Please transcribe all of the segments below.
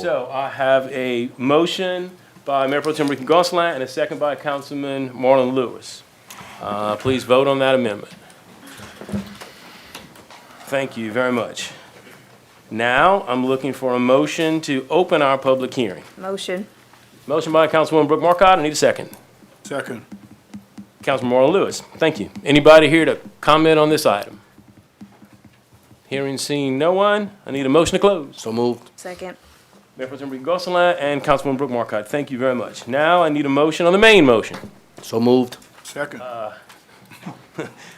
So I have a motion by Mayor Pro Tem Ricky Gonsalas and a second by Councilman Marlon Lewis. Uh, Please vote on that amendment. Thank you very much. Now, I'm looking for a motion to open our public hearing. Motion. Motion by Councilwoman Brooke Markcott, I need a second. Second. Councilman Marlon Lewis, thank you. Anybody here to comment on this item? Hearing seen, no one. I need a motion to close. So moved. Second. Mayor Pro Tem Ricky Gonsalas and Councilwoman Brooke Markcott, thank you very much. Now I need a motion on the main motion. So moved. Second. Uh,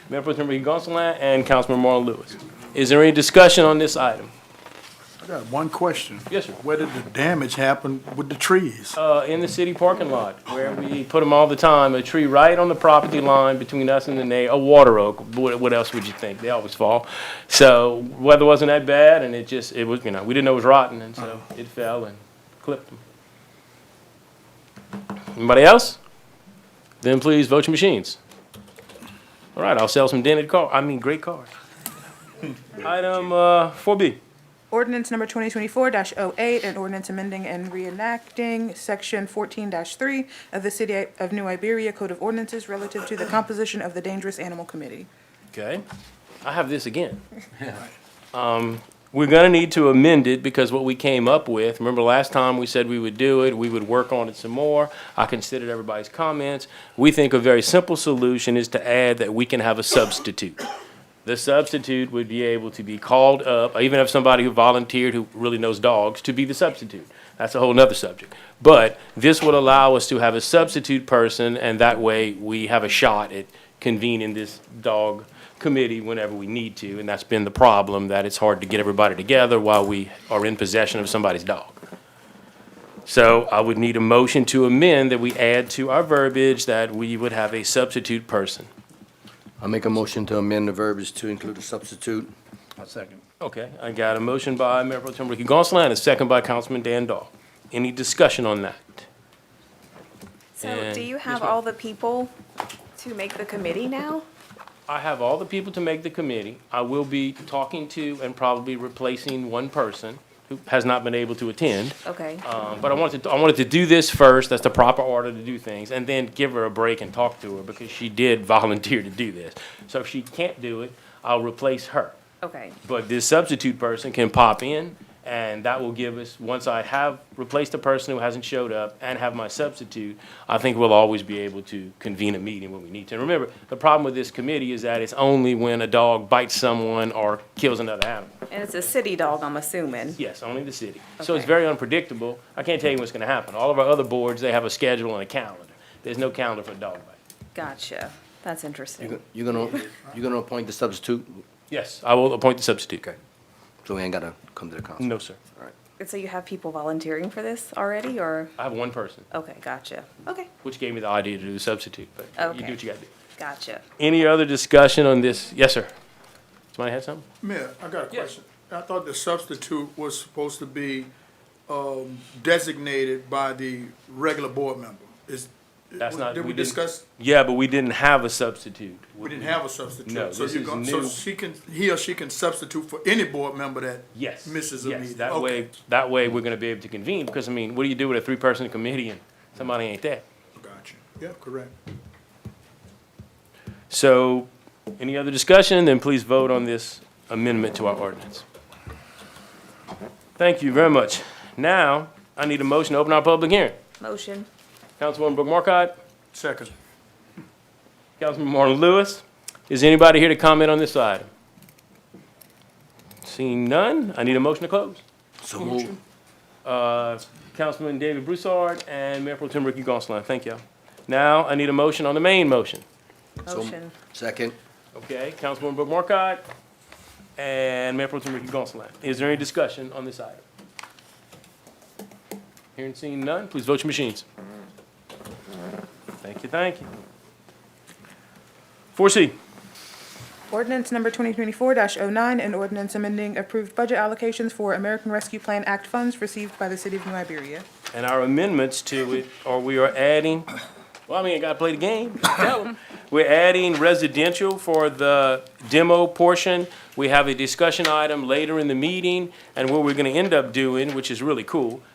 Mayor Pro Tem Ricky Gonsalas and Councilman Marlon Lewis. Is there any discussion on this item? I got one question. Yes, sir. Where did the damage happen with the trees? Uh, in the city parking lot, where we put them all the time, a tree right on the property line between us and the neigh, a water oak, what, what else would you think? They always fall. So weather wasn't that bad, and it just, it was, you know, we didn't know it was rotten, and so it fell and clipped them. Anybody else? Then please vote your machines. All right, I'll sell some dented car, I mean, great cars. Item, uh, four B. Ordinance number 2024-08, an ordinance amending and reenacting Section 14-3 of the City of New Iberia Code of Ordinances relative to the composition of the Dangerous Animal Committee. Okay, I have this again. Um, we're gonna need to amend it because what we came up with, remember last time we said we would do it, we would work on it some more. I considered everybody's comments. We think a very simple solution is to add that we can have a substitute. The substitute would be able to be called up, I even have somebody who volunteered who really knows dogs to be the substitute. That's a whole nother subject. But this would allow us to have a substitute person, and that way we have a shot at convening this dog committee whenever we need to. And that's been the problem, that it's hard to get everybody together while we are in possession of somebody's dog. So I would need a motion to amend that we add to our verbiage that we would have a substitute person. I make a motion to amend the verbiage to include a substitute. Okay, I got a motion by Mayor Pro Tem Ricky Gonsalas and a second by Councilman Dan Dahl. Any discussion on that? So And- do you Yes, have ma'am. all the people to make the committee now? I have all the people to make the committee. I will be talking to and probably replacing one person who has not been able to attend. Okay. Um, but I wanted to, I wanted to do this first, that's the proper order to do things, and then give her a break and talk to her, because she did volunteer to do this. So if she can't do it, I'll replace her. Okay. But this substitute person can pop in, and that will give us, once I have replaced the person who hasn't showed up and have my substitute, I think we'll always be able to convene a meeting when we need to. And remember, the problem with this committee is that it's only when a dog bites someone or kills another animal. And it's a city dog, I'm assuming. Yes, only the city. So it's Okay. very unpredictable. I can't tell you what's gonna happen. All of our other boards, they have a schedule and a calendar. There's no calendar for dog bite. Gotcha. That's interesting. You're gonna, you're gonna appoint the substitute, Yes, I will appoint the substitute. Okay. so we ain't gotta come to the council. No, sir. So you have people volunteering for this already, or? I have one person, Okay, gotcha. Okay, which gave me the idea to do the substitute, but you do Okay. what you gotta do. gotcha. Any other discussion on this? Yes, sir. Somebody had something? Mayor, I got a Yes. question. I thought the substitute was supposed to be um, designated by the regular board member. Is, That's not- did we we didn't- discuss, Yeah, but we didn't have a substitute. we didn't have a substitute? No, So this you're is gon- So new. she can, he or she can substitute for any board member that Yes. misses a yes, meeting? That Okay. way, that way we're gonna be able to convene, because I mean, what do you do with a three-person committee and somebody ain't there? Gotcha. Yeah, correct. So, any other discussion, then please vote on this amendment to our ordinance. Thank you very much. Now, I need a motion to open our public hearing. Motion. Councilwoman Brooke Markcott, Second. Councilman Marlon Lewis. Is anybody here to comment on this item? Seeing none, I need a motion to close. So moved. Uh, Councilman David Broussard and Mayor Pro Tem Ricky Gonsalas, thank you. Now, I need a motion on the main motion. So- Motion. Second, Okay, Councilwoman Brooke Markcott and Mayor Pro Tem Ricky Gonsalas. Is there any discussion on this item? Hearing seen none, please vote your machines. Thank you, thank you. Four C, Ordinance number 2024-09, an ordinance amending approved budget allocations for American Rescue Plan Act funds received by the City of New Iberia. and our amendments to it, or we are adding, well, I mean, I gotta play the game. Tell 'em. We're adding residential for the demo portion. We have a discussion item later in the meeting, and what we're gonna end up doing, which is really cool,